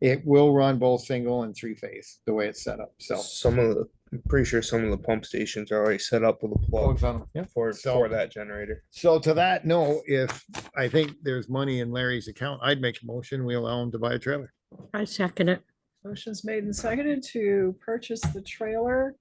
It will run both single and three phase, the way it's set up, so. Some of the, I'm pretty sure some of the pump stations are already set up with a plug for, So- for that generator. So to that, no, if I think there's money in Larry's account, I'd make a motion, we allow him to buy a trailer. I second it. Motion's made and seconded to purchase the trailer.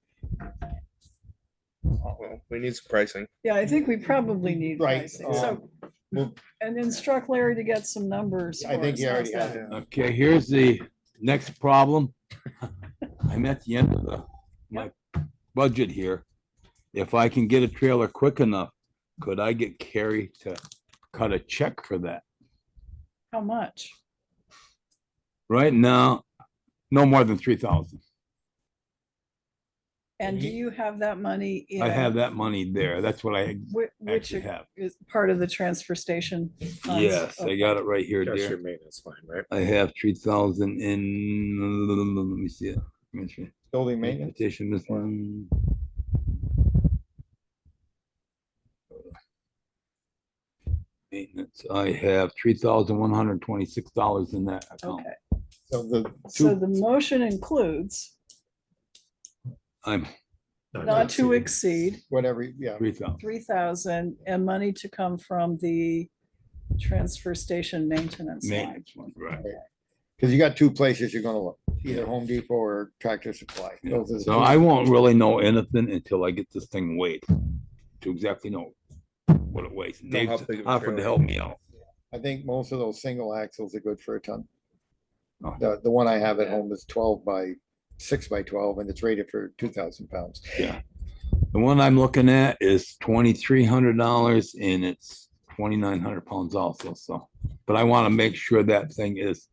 Well, we need some pricing. Yeah, I think we probably need Right, um, pricing, so. well- And instruct Larry to get some numbers. I for think us. he How's already that? has it. Okay, here's the next problem. I'm at the end of the, my budget here. If I can get a trailer quick enough, could I get Carrie to cut a check for that? How much? Right now, no more than three thousand. And do he- you have that money? I have in that money there. That's what I whi- Which actually have. is part of the transfer station? funds? Oh, Yes, I got it right here, dear. maintenance line, right? I have three thousand in, let me see it. Let me see. Building maintenance, Transportation, this one. Maintenance, I have three thousand one hundred twenty-six dollars in that account. Okay, so the, so the motion includes I'm not to exceed whatever, yeah, three thousand, three thousand and money to come from the transfer station maintenance line. maintenance one, right. because you got two places you're gonna look, either Home Depot or Tractor Supply. Yeah. Those are the So two. I won't really know anything until I get this thing weighed, to exactly know what it weighs. Dave how big of a offered trailer. to help me out. I think most of those single axles are good for a ton. Oh. The, the one I have at home is twelve by, six by twelve, and it's rated for two thousand pounds. The one I'm looking at is twenty-three hundred dollars and it's twenty-nine hundred pounds also, so. But I want to make sure that thing is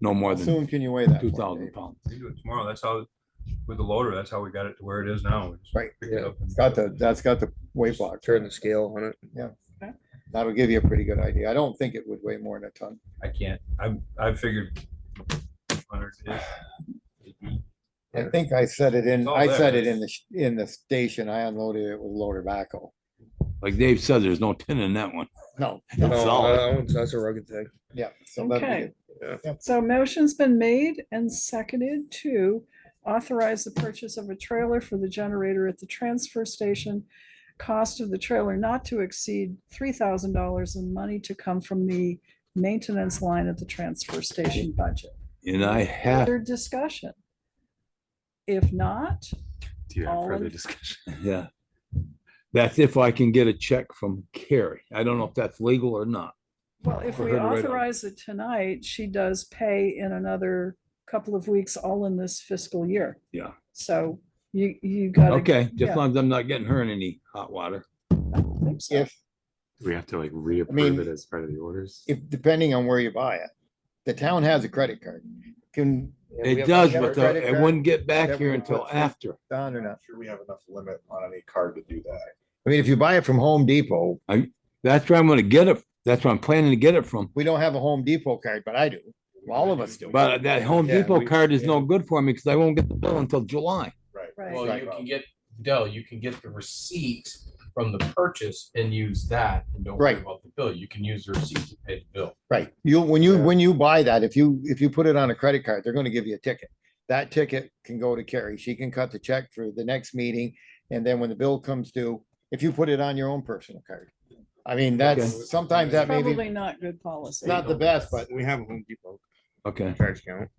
no more How than soon can you weigh that? two one, thousand Dave? pounds. We do it tomorrow. That's how, with the loader, that's how we got it to where it is now. We just Right, picked it yeah. up and- It's Got the, that's got the weight block. Turn the scale on it. That'll give you a pretty good idea. I don't think it would weigh more than a ton. I can't, I, I figured. 100 is- I think I set it in, It's all I set there. it in the, sh- in the station. I unloaded it with loader backhoe. Like Dave says, there's no tin in that one. No. No, That's all. uh, that one's- that's a rugged thing. Yeah. so that'd be Okay. good. So motion's been made and seconded to authorize the purchase of a trailer for the generator at the transfer station. Cost of the trailer not to exceed three thousand dollars and money to come from the maintenance line at the transfer station budget. And I have, Further discussion? If not, Do you All have in- further discussion? yeah. That's if I can get a check from Carrie. I don't know if that's legal or not. well, if For we her to write on. authorize it tonight, she does pay in another couple of weeks, all in this fiscal year. Yeah. So you, you gotta. Okay, yeah. just long as I'm not getting her in any hot water. I don't think so. If, Do we have to like mean, reapprove it as part of the orders? if, depending on where you buy it, the town has a credit card. Can, Yeah, we It have- does, we have a but the- credit it card wouldn't get back that here we until put through. after. Don or not? sure we have enough limit on any card to do that. I mean, if you buy it from Home Depot, That's where I'm gonna get it. That's where I'm planning to get it from. we don't have a Home Depot card, but I do. All of us do. uh, But that Home Yeah, Depot we- card is no good for me because I won't get the bill until July. Right. Well, you can get, Dell, you can get the receipt from the purchase and use that and don't worry Right. about the bill. You can use the receipt to pay the bill. Right, you, when you, Yeah. when you buy that, if you, if you put it on a credit card, they're gonna give you a ticket. That ticket can go to Carrie, she can cut the check for the next meeting, and then when the bill comes due, if you put it on your own personal card. I mean, that's, sometimes that may be, Probably not good policy. it's not the best, but We have a Home Depot Okay. charge account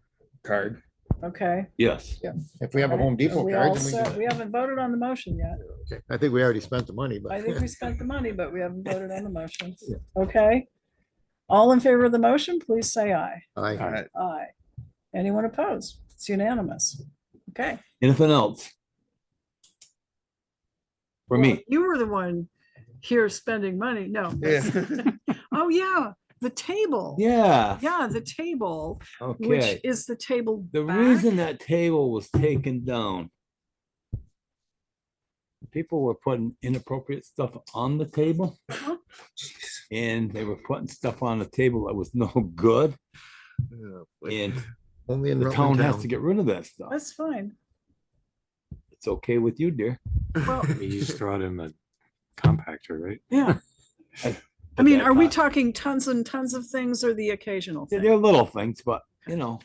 card. Okay. Yes. if we have a Right. Home Depot We card, all then we set. can- We haven't voted on the motion yet. I think we already spent the money, but. I think we spent the money, but we haven't voted on the motion. Okay. All in favor of the motion, please say aye. Aye. Alright, Aye. Anyone opposed? It's unanimous. Okay. Anything else? For me, Well, You were the one here spending money. No. that's- Yeah. Oh, yeah, the table. yeah, Yeah, the table, which okay. is the table. The back. reason that table was taken down. People were putting inappropriate stuff on the table. And they were putting stuff on the table that was no good and Only the town has to get rid of that stuff. That's fine. It's okay with you, dear. Well, You just throw it in the compactor, right? Yeah. I mean, are we talking tons and tons of things or the occasional? thing? They're little things, but you know.